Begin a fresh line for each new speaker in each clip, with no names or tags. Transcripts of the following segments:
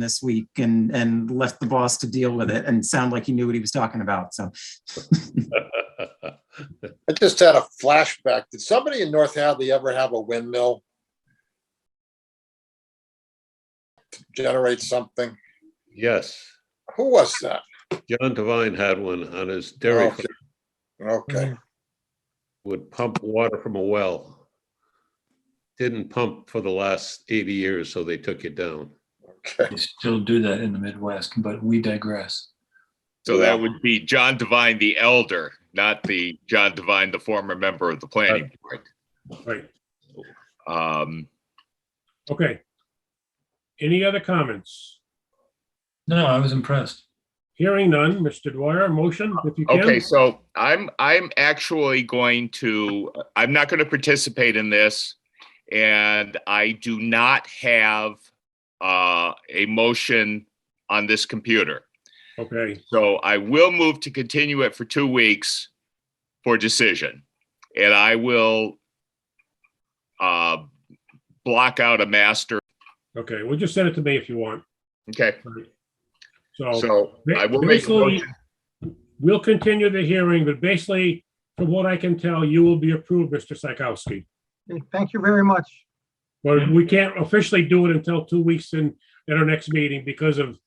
this week and, and left the boss to deal with it and sound like he knew what he was talking about. So
I just had a flashback. Did somebody in North Hadley ever have a windmill? to Generate something?
Yes,
Who was that?
John Devine had one on his dairy
Oh.
farm,
Mm.
Okay,
would pump water from a well. Didn't pump for the last 80 years, so they took it down.
okay.
They still do that in the Midwest, but we digress.
So that would be John Devine, the elder, not the John Devine, the former member of the planning board.
Right,
Um,
okay. Any other comments?
No, I was impressed.
Hearing none, Mr. Dwyer, motion if you can.
okay, so I'm, I'm actually going to, I'm not going to participate in this. And I do not have, uh, a motion on this computer.
Okay,
So I will move to continue it for two weeks for decision. And I will uh, block out a master.
okay, well, just send it to me if you want.
Okay,
So
so I will make a
basically,
motion.
we'll continue the hearing, but basically, from what I can tell, you will be approved, Mr. Psychowski.
Okay, Thank you very much.
But we can't officially do it until two weeks in, at our next meeting because of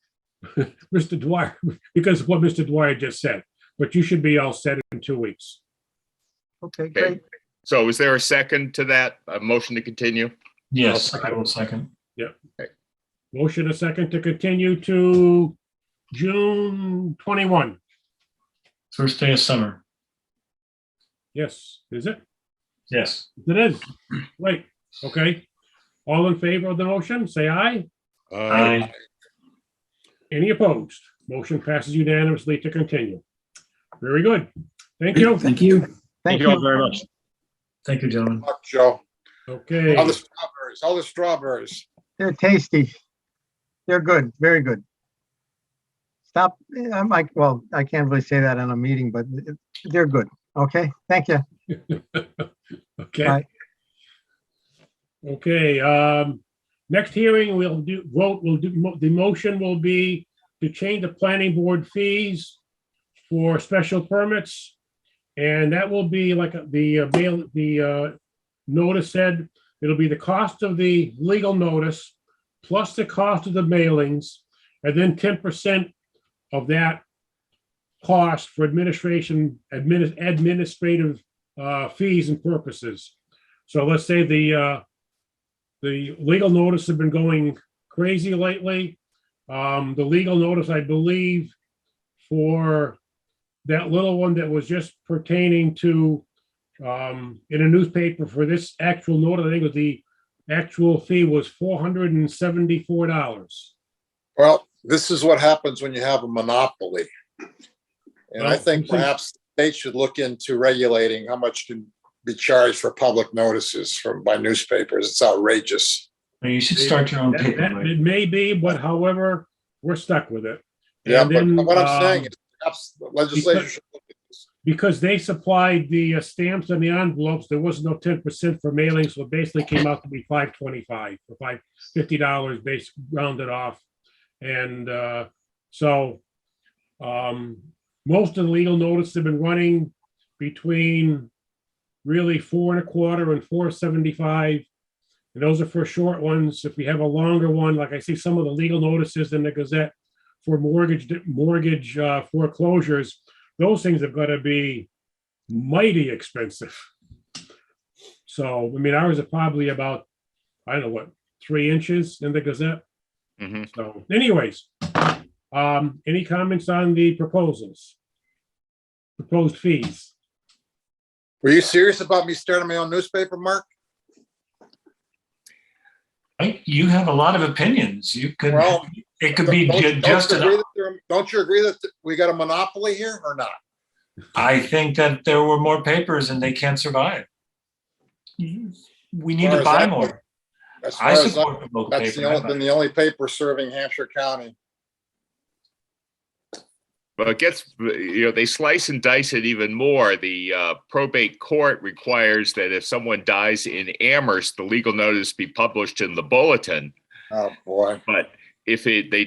Mr. Dwyer, because of what Mr. Dwyer just said. But you should be all set in two weeks.
Okay,
Okay.
great.
So is there a second to that, a motion to continue?
Yes, I will second.
Motion a second to continue to June 21.
First day of summer.
Yes, is it?
Yes.
It is. Wait, okay. All in favor of the motion, say aye.
Uh,
I,
Any opposed? Motion passes unanimously to continue. Very good. Thank you.
thank you.
Thank you.
very much.
thank you, gentlemen.
Fuck, Joe.
Okay,
All the strawberries, all the strawberries.
They're tasty. They're good, very good. Stop, I'm like, well, I can't really say that on a meeting, but they're good. Okay, thank you.
okay.
Aye.
Okay, um, next hearing, we'll do, vote, we'll do, mo- the motion will be to change the planning board fees for special permits. And that will be like the uh, mail, the uh, notice said, it'll be the cost of the legal notice plus the cost of the mailings, and then ten percent of that cost for administration, admini- administrative uh, fees and purposes. So let's say the uh, the legal notice have been going crazy lately. Um, the legal notice, I believe, for that little one that was just pertaining to um, in a newspaper for this actual notice, I think it was the actual fee was four hundred and seventy-four dollars.
Well, this is what happens when you have a monopoly. And I
Well,
think
you think-
perhaps the state should look into regulating how much can be charged for public notices from, by newspapers. It's outrageous.
You should start your own
That,
paper.
that-
Mike.
it may be, but however, we're stuck with it.
Yeah,
And
but
then,
what I'm
um,
saying is perhaps the legislature should look at this.
because they supplied the uh, stamps and the envelopes, there was no ten percent for mailing, so it basically came out to be five twenty-five, or five fifty dollars, base rounded off. And uh, so um, most of the legal notice have been running between really four and a quarter and four seventy-five. And those are for short ones. If we have a longer one, like I see some of the legal notices in the Gazette for mortgage, mortgage uh, foreclosures, those things have got to be mighty expensive. So, I mean, ours are probably about, I don't know what, three inches in the Gazette.
Mhm.
So anyways, um, any comments on the proposals? Proposed fees?
Were you serious about me starting my own newspaper, Mark?
Mike, You have a lot of opinions. You could,
Well,
it could be
Don't-
ju-
don't you
just,
agree
an-
that there- Don't you agree that we got a monopoly here or not?
I think that there were more papers and they can't survive. Mm-hmm. We need
As far
to
as
buy
I'm-
more.
As far
I
as,
support
I-
the local
that's the
paper. I
only,
buy
been
it.
the only paper serving Hampshire County.
But it gets, you know, they slice and dice it even more. The uh, probate court requires that if someone dies in Amherst, the legal notice be published in the bulletin.
Oh, boy.
But if it, they